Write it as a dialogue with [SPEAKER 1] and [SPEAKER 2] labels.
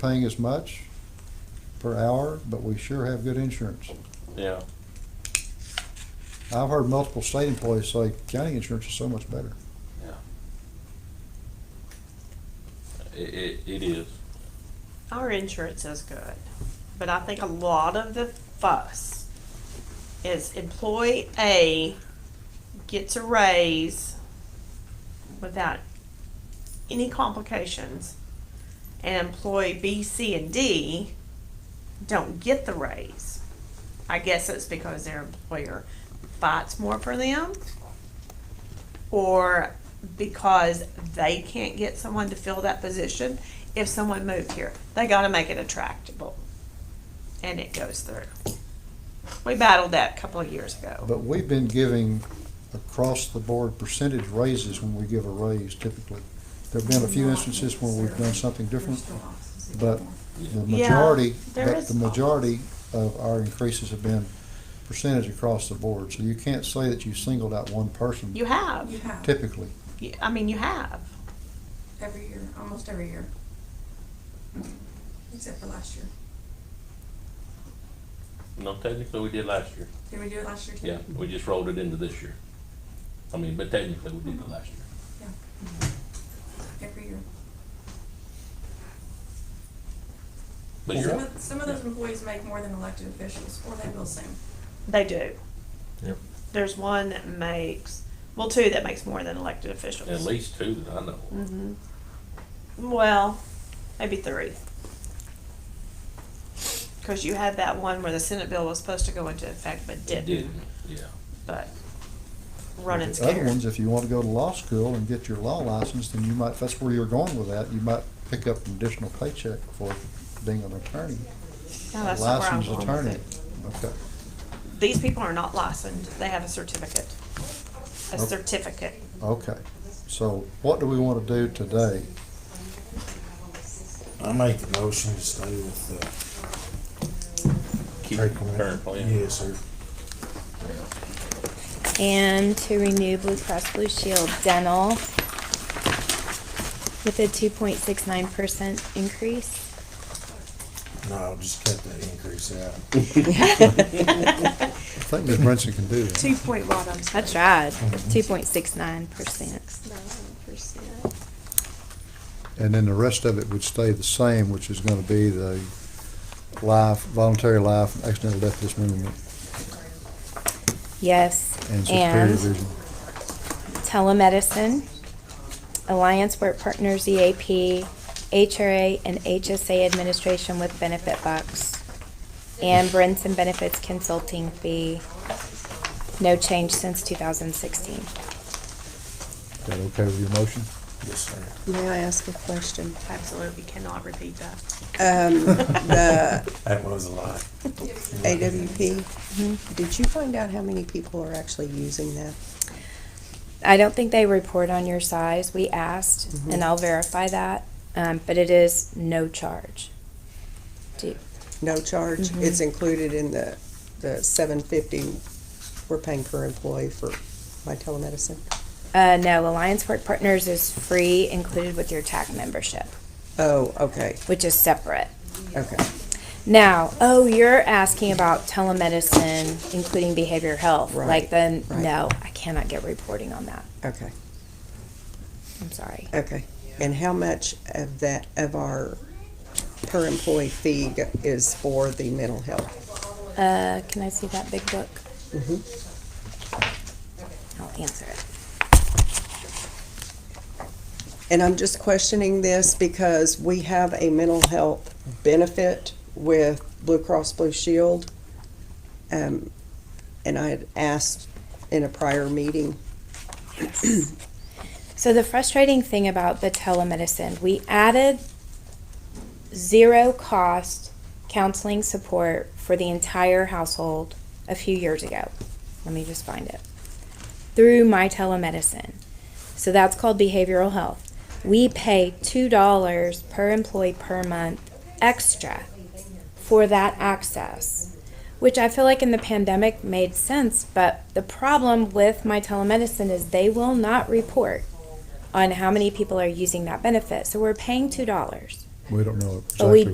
[SPEAKER 1] paying as much per hour, but we sure have good insurance.
[SPEAKER 2] Yeah,
[SPEAKER 1] I've heard multiple state employees say county insurance is so much better.
[SPEAKER 2] it, it, it is.
[SPEAKER 3] Our insurance is good, but I think a lot of the fuss is employee A gets a raise without any complications, and employee B, C, and D don't get the raise. I guess it's because their employer fights more for them, or because they can't get someone to fill that position if someone moved here. They gotta make it attractable. And it goes through. We battled that a couple of years ago.
[SPEAKER 1] But we've been giving across-the-board percentage raises when we give a raise typically. There've been a few instances where we've done something different, but the
[SPEAKER 3] Yeah,
[SPEAKER 1] majority,
[SPEAKER 3] there
[SPEAKER 1] but
[SPEAKER 3] is-
[SPEAKER 1] the majority of our increases have been percentage across the board. So you can't say that you singled out one person
[SPEAKER 3] You have,
[SPEAKER 4] You have,
[SPEAKER 1] typically.
[SPEAKER 3] You- I mean, you have.
[SPEAKER 4] every year, almost every year. Except for last year.
[SPEAKER 2] No, technically, we did last year.
[SPEAKER 4] Did we do it last year too?
[SPEAKER 2] Yeah, we just rolled it into this year. I mean, but technically, we did it last year.
[SPEAKER 4] Every year.
[SPEAKER 2] But
[SPEAKER 4] Some
[SPEAKER 2] you're,
[SPEAKER 4] of, some of those employees make more than elected officials, or they will soon.
[SPEAKER 3] They do.
[SPEAKER 2] Yep.
[SPEAKER 3] There's one that makes, well, two that makes more than elected officials.
[SPEAKER 2] at least two that I know. of.
[SPEAKER 4] Mm-hmm.
[SPEAKER 3] hmm Mm-hmm. Well, maybe three. Cause you had that one where the Senate bill was supposed to go into effect but
[SPEAKER 2] Did,
[SPEAKER 3] didn't,
[SPEAKER 2] yeah.
[SPEAKER 3] but running
[SPEAKER 1] The Other
[SPEAKER 3] scared.
[SPEAKER 1] ones, if you want to go to law school and get your law license, then you might, if that's where you're going with that, you might pick up an additional paycheck for being an attorney,
[SPEAKER 3] No,
[SPEAKER 1] a
[SPEAKER 3] Oh, that's not where I'm
[SPEAKER 1] licensed
[SPEAKER 3] going with
[SPEAKER 1] attorney.
[SPEAKER 3] it.
[SPEAKER 1] Okay.
[SPEAKER 3] These people are not licensed, they have a certificate. A
[SPEAKER 1] Okay.
[SPEAKER 3] certificate.
[SPEAKER 1] Okay, so what do we want to do today?
[SPEAKER 5] I make the motion to stay with the
[SPEAKER 2] Keep
[SPEAKER 5] trade
[SPEAKER 2] the
[SPEAKER 5] commission.
[SPEAKER 2] current plan.
[SPEAKER 5] Yes, sir.
[SPEAKER 6] And to renew Blue Cross Blue Shield Dental with a two point six nine percent increase.
[SPEAKER 5] No, I'll just cut that increase out.
[SPEAKER 1] I think Ms. Brinson can do that.
[SPEAKER 3] Two point one, I'm
[SPEAKER 6] I
[SPEAKER 3] sorry.
[SPEAKER 6] tried. Two point six nine percent.
[SPEAKER 1] And then the rest of it would stay the same, which is going to be the life, voluntary life, and accidental death dismemberment,
[SPEAKER 6] Yes.
[SPEAKER 1] and superior
[SPEAKER 6] And
[SPEAKER 1] vision.
[SPEAKER 6] telemedicine, Alliance Work Partners E EAP, HRA and HSA administration with benefit box. And Brinson Benefits Consulting fee. No change since two thousand sixteen.
[SPEAKER 1] Is that okay with your motion?
[SPEAKER 5] Yes, sir.
[SPEAKER 7] May I ask a question?
[SPEAKER 3] Absolutely cannot repeat that.
[SPEAKER 7] Um, the
[SPEAKER 5] That was a lot.
[SPEAKER 6] Mm-hmm.
[SPEAKER 7] AWP, did you find out how many people are actually using that?
[SPEAKER 6] I don't think they report on your size. We asked,
[SPEAKER 7] Mm-hmm.
[SPEAKER 6] and I'll verify that. Um, but it is no charge. Do-
[SPEAKER 7] No charge?
[SPEAKER 6] Mhm.
[SPEAKER 7] It's included in the, the seven fifty we're paying per employee for my telemedicine?
[SPEAKER 6] Uh, no, Alliance Work Partners is free, included with your TAC membership,
[SPEAKER 7] Oh, okay,
[SPEAKER 6] which is separate.
[SPEAKER 7] okay.
[SPEAKER 6] Now, oh, you're asking about telemedicine, including behavioral health.
[SPEAKER 7] Right,
[SPEAKER 6] Like then,
[SPEAKER 7] right.
[SPEAKER 6] no, I cannot get reporting on that.
[SPEAKER 7] Okay,
[SPEAKER 6] I'm sorry.
[SPEAKER 7] okay. And how much of that, of our per employee fee go- is for the mental health?
[SPEAKER 6] Uh, can I see that big book?
[SPEAKER 7] Mhm.
[SPEAKER 6] I'll answer it.
[SPEAKER 7] And I'm just questioning this because we have a mental health benefit with Blue Cross Blue Shield. Um, and I had asked in a prior meeting,
[SPEAKER 6] So the frustrating thing about the telemedicine, we added zero cost counseling support for the entire household a few years ago. Let me just find it. Through my telemedicine. So that's called behavioral health. We pay $2 per employee per month extra for that access, which I feel like in the pandemic made sense. But the problem with my telemedicine is they will not report on how many people are using that benefit. So we're paying $2.
[SPEAKER 1] We don't know exactly.
[SPEAKER 6] But we